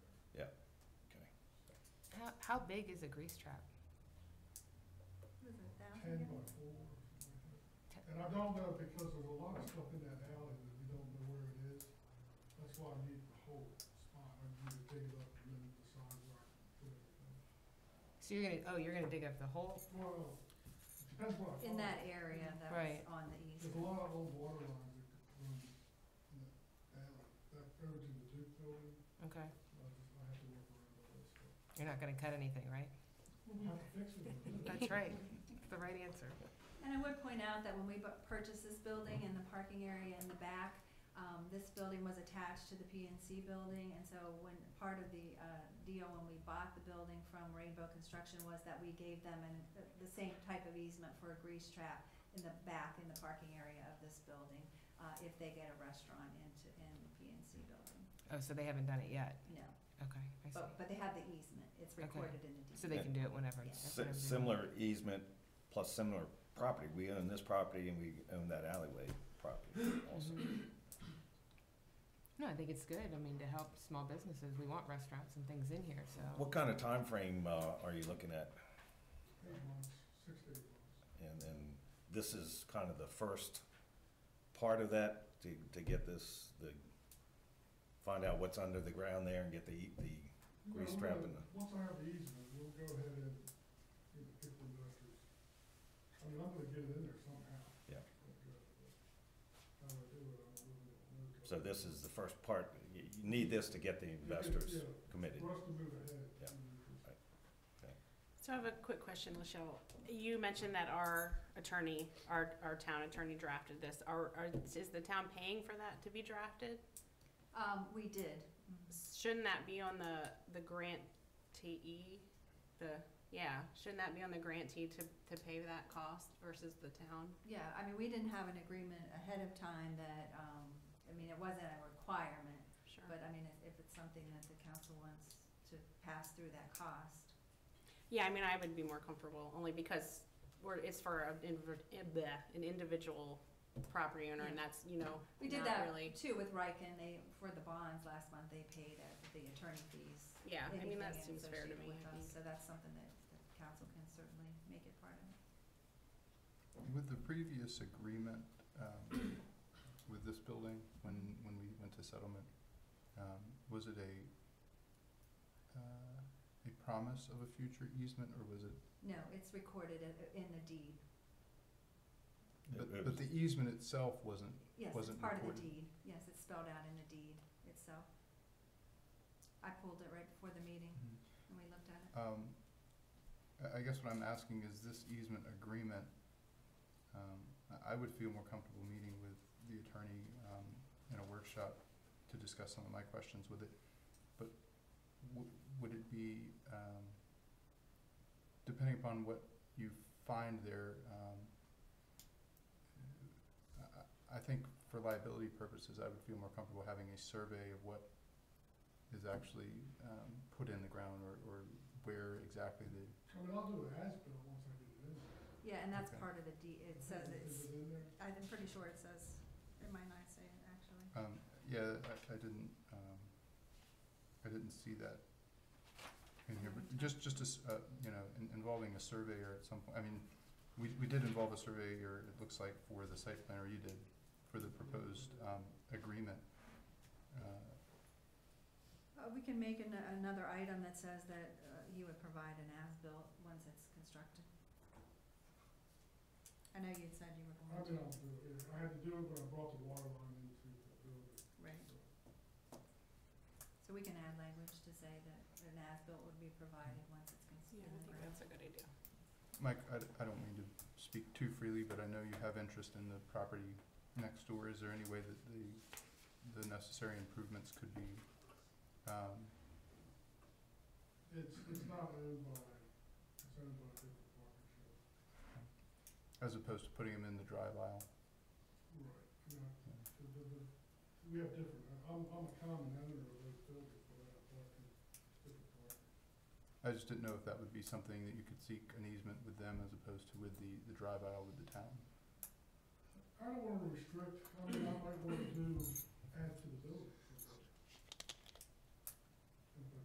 how big is a grease trap? Was it a ten thousand? by four. or something like that. And I don't know because there's a lot of stuff in that alley that we don't know where it is. That's why I need the whole spot. I need to dig it up and then the sidewalk and put everything. So you're gonna, oh, you're gonna dig up the whole, Well, depends what I In find. that area that was Right. on the east. There's a lot of old water lines that could run in that alley. That goes to the Duke building, okay, I just, I have to work around all that stuff. you're not gonna cut anything, right? We'll have to fix it. That's right, the right answer. And I would point out that when we bu- purchased this building and the parking area in the back, um, this building was attached to the PNC building, and so when, part of the, uh, deal when we bought the building from Rainbow Construction was that we gave them an, the- the same type of easement for a grease trap in the back, in the parking area of this building, uh, if they get a restaurant into, in the PNC building, Oh, so they haven't done it yet, no. okay, I see. But, but they have the easement, it's Okay. recorded in the deed. So they can do it whenever. Yeah. that's Si- what I'm doing. Similar easement plus similar property. We own this property and we own that alleyway property also. Mm-hmm. Mhm. No, I think it's good, I mean, to help small businesses, we want restaurants and things in here, so. What kind of timeframe, uh, are you looking at? Eight months, six to eight months. And, and this is kind of the first part of that to, to get this, the, find out what's under the ground there and get the, the, Grease No, trap we'll- in the- Once I have the easement, we'll go ahead and get the people investors. I mean, I'm gonna get it in there somehow. Yeah. But, uh, How I do it, I don't really know. so this is the first part. You, you need this to get the investors Yeah, committed. For us to move ahead. Yeah. Mm, So I have a quick question, Lachelle. You mentioned that our attorney, our, our town attorney drafted this. Are, are, is the town paying for that to be drafted? Um, we did. Mhm. Shouldn't that be on the, the grantee? The, yeah, shouldn't that be on the grantee to, to pay that cost versus the town? Yeah, I mean, we didn't have an agreement ahead of time that, um, I mean, it wasn't a requirement, Sure. but I mean, if- if it's something that the council wants to pass through that cost. Yeah, I mean, I would be more comfortable, only because we're, it's for a inver- eh, bleh, an individual property owner, and that's, you know, We did not that really- too with Riken, they, for the bonds last month, they paid uh, the attorney fees. Yeah, I mean, that anything seems fair to associated me, with I us, think. So that's something that the council can certainly make it part of. With the previous agreement um, with this building, when, when we went to settlement, um, was it a, uh, a promise of a future easement, or was it, No, it's recorded i- in the deed. It- it but, but was- the easement itself wasn't? Yes, it's Wasn't part of the recorded. deed. Yes, it's spelled out in the deed itself. I pulled it right before the meeting and we looked at it. Um, I, I guess what I'm asking is this easement agreement, um, I, I would feel more comfortable meeting with the attorney, um, in a workshop to discuss some of my questions with it, but w- would it be, um, depending upon what you find there, um, I, I- I think for liability purposes, I would feel more comfortable having a survey of what is actually, um, put in the ground or, or where exactly the, I mean, I'll do an as-built once I get it in there. Yeah, and that's Okay. part of the D, it says it's, Is it in there? I'm pretty sure it says, it might not say it actually. um, yeah, I, I didn't, um, I didn't see that in here, but just, just as, uh, you know, in- involving a surveyor at some point, I mean, we, we did involve a surveyor, it looks like, for the site plan, or you did, for the proposed, um, agreement. Uh, Uh, we can make an, another item that says that, uh, you would provide an as-built once it's constructed. I know you'd said you were I going to, mean, I'll do it, yeah. I had to do it when I brought the water line into the building. right, so. so we can add language to say that an as-built would be provided once it's Yeah, constructed. I think that's a good idea. Mike, I, d- I don't mean to speak too freely, but I know you have interest in the property next door. Is there any way that the, the necessary improvements could be, um, It's, it's not owned by, it's owned by a different partnership. as opposed to putting them in the drive aisle? Right, yeah, the, the, the, we have different, I- I'm, I'm a common owner of those buildings, but I have parking, different parking. I just didn't know if that would be something that you could seek an easement with them as opposed to with the, the drive aisle with the town. I don't wanna restrict, I mean, I might wanna do, add to the building.